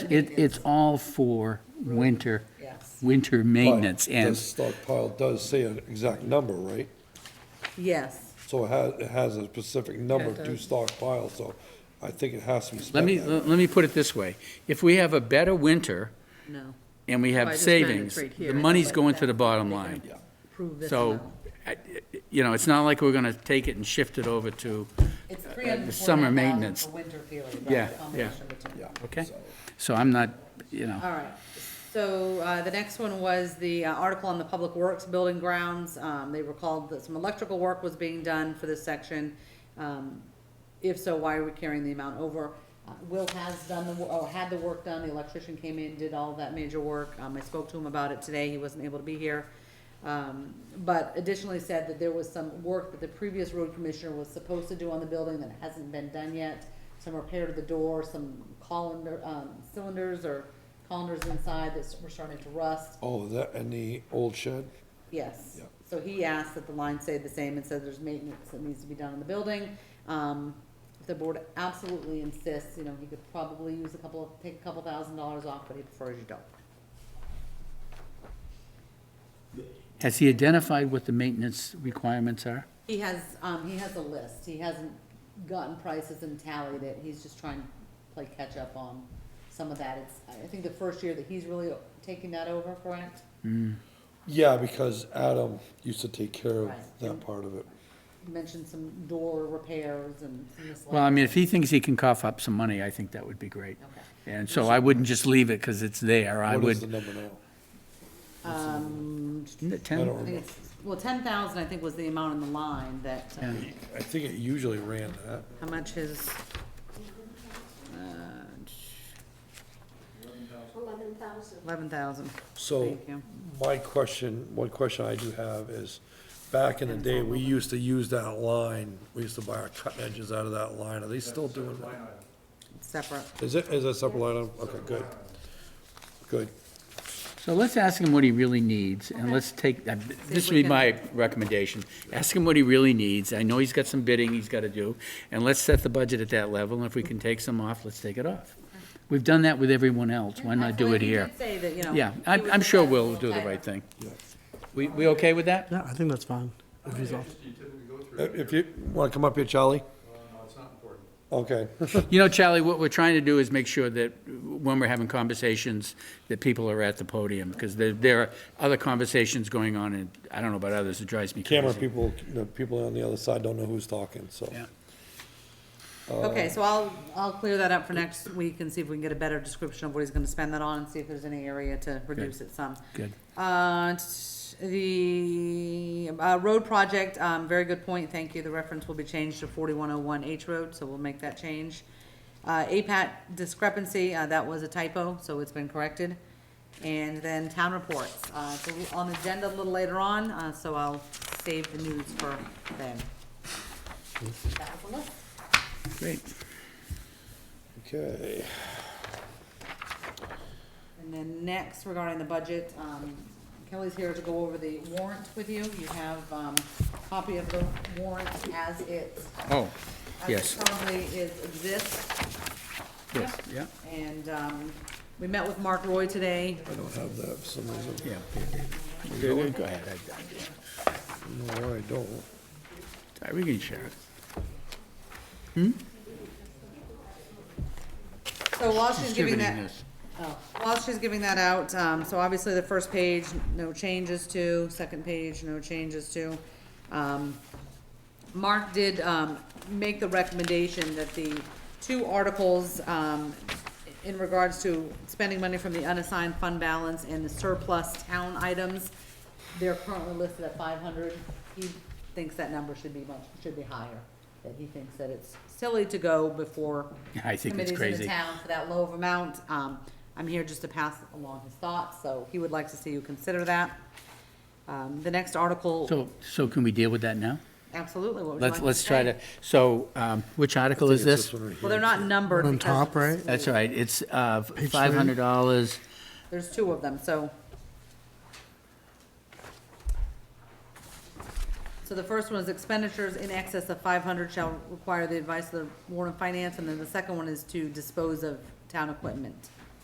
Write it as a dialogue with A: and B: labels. A: It, it's all for winter,
B: Yes.
A: winter maintenance,
C: The
A: and
C: stockpile does say an exact number, right?
B: Yes,
C: So it has, it has a specific number
B: It
C: to
B: does.
C: stockpile, so I think it has to be
A: let
C: spent.
A: me,
C: that way.
A: let me put it this way. If we have a better winter
B: no.
A: and we
B: Well, I
A: have
B: just meant it's
A: savings,
B: right
A: the
B: here,
A: money's
B: but
A: going to
B: that-
A: the bottom
B: they're
A: line.
B: gonna Prove this
A: So,
B: amount.
A: I- you know, it's not like we're gonna take it and shift it over to,
D: It's
A: uh, the summer
D: 340,000
A: maintenance.
D: For winter period. right?
A: Yeah,
D: The
A: yeah.
D: combination of the two.
C: Yeah,
A: okay?
C: so-
A: So I'm not, you know,
D: All right, so uh, the next one was the uh, article on the Public Works Building Grounds. Um, They recalled that some electrical work was being done for this section. Um, If so, why are we carrying the amount over? Uh, Will has done the, wo- oh, had the work done, the electrician came in, did all that major work. Um, I spoke to him about it today, he wasn't able to be here. Um, But additionally said that there was some work that the previous road commissioner was supposed to do on the building that hasn't been done yet. Some repair to the door, some colander, um, cylinders or colanders inside that were starting to rust.
C: Oh, that, and the old shed?
D: Yes.
C: Yeah.
D: So he asked that the line stay the same and said there's maintenance that needs to be done in the building. Um, if the board absolutely insists, you know, he could probably use a couple, of take a couple thousand dollars off, but he prefers you don't.
A: has he identified what the maintenance requirements are?
D: He has, um, he has a list. He hasn't gotten prices and tallied it. He's just trying to play catch up on some of that. It's, I think the first year that he's really taking that over, correct?
C: Yeah, because Adam used to take care of
D: Right.
C: that part of it.
D: You mentioned some door repairs and some
A: Well, I
D: miscellaneous.
A: mean, if he thinks he can cough up some money, I think that would be great.
D: Okay.
A: And so I wouldn't just leave it because it's there. I
C: What is the
A: would,
C: number now?
D: Um,
A: Isn't it 10?
C: I don't
D: I think
C: remember.
D: it's, well, ten thousand, I think, was the amount in the line that, uh,
C: I think it usually ran that.
D: how much his, uh,
E: Eleven thousand.
D: eleven thousand.
C: So
D: Thank you.
C: my question, one question I do have is, back in the day, we used to use that line. We used to buy our cut edges out of that line. Are they still doing that?
D: Separate.
C: Is it, is it a separate line item? Okay, good. Good.
A: So let's ask him what he really needs, and let's take, uh, this would
D: we
A: be my recommendation. Ask him what he really needs. I know he's got some bidding he's got to do, and let's set the budget at that level, and if we can take some off, let's take it off. We've done that with everyone else. Why not do it here?
D: Say that, you know.
A: Yeah,
D: he
A: I'm,
D: was
A: I'm sure
D: a
A: we'll
D: little
A: do the
D: tighter.
A: right thing. We, we okay with that?
F: Yeah, I think that's fine. If he's off.
C: If you want to come up here, Charlie? No, it's Uh, not important. Okay.
A: You know, Charlie, what we're trying to do is make sure that when we're having conversations, that people are at the podium, because there, there are other conversations going on, and I don't know about others, it drives me crazy.
C: Camera people, the people on the other side don't know who's talking, so.
A: Yeah.
D: Okay, so I'll, I'll clear that up for next week and see if we can get a better description of what he's gonna spend that on and see if there's any area to reduce it some.
A: Good.
D: Uh, t- the, uh, road project, um, very good point, thank you, the reference will be changed to forty-one oh one H Road, so we'll make that change. Uh, APAT discrepancy, uh, that was a typo, so it's been corrected. And then town reports, uh, so we- on the agenda a little later on, uh, so I'll save the news for then. That was the list.
A: Great.
C: Okay.
D: And then next regarding the budget, um, Kelly's here to go over the warrant with you. You have, um, copy of the warrant as it,
A: Oh,
D: as
A: yes,
D: it currently is, exists.
A: yes, yeah,
D: And, um, we met with Mark Roy today.
C: I don't have that for some reason.
A: yeah. Go ahead, I-
C: No, I don't.
A: I- we can share it.
D: So while she's giving that.
A: Distributing this.
D: Oh, While she's giving that out, um, so obviously the first page, no changes to, second page, no changes to. Um, Mark did, um, make the recommendation that the two articles, um, in regards to spending money from the unassigned fund balance and the surplus town items, they're currently listed at five hundred. He thinks that number should be much, should be higher, that he thinks that it's silly to go before
A: I think it's
D: committees in
A: crazy.
D: the town for that low of amount. Um, I'm here just to pass along his thoughts, so he would like to see you consider that. Um, the next article,
A: So, so can we deal with that now?
D: absolutely, what would you like
A: Let's,
D: to
A: let's try
D: say?
A: to, so, um, which article is
C: It's
A: this?
C: one right here.
D: Well, they're not numbered.
F: On
D: because
F: top, right?
A: That's all right, it's, uh,
F: three.
A: five hundred dollars.
D: There's two of them, so. So the first one is expenditures in excess of five hundred shall require the advice of the Warren Finance, and then the second one is to dispose of town equipment.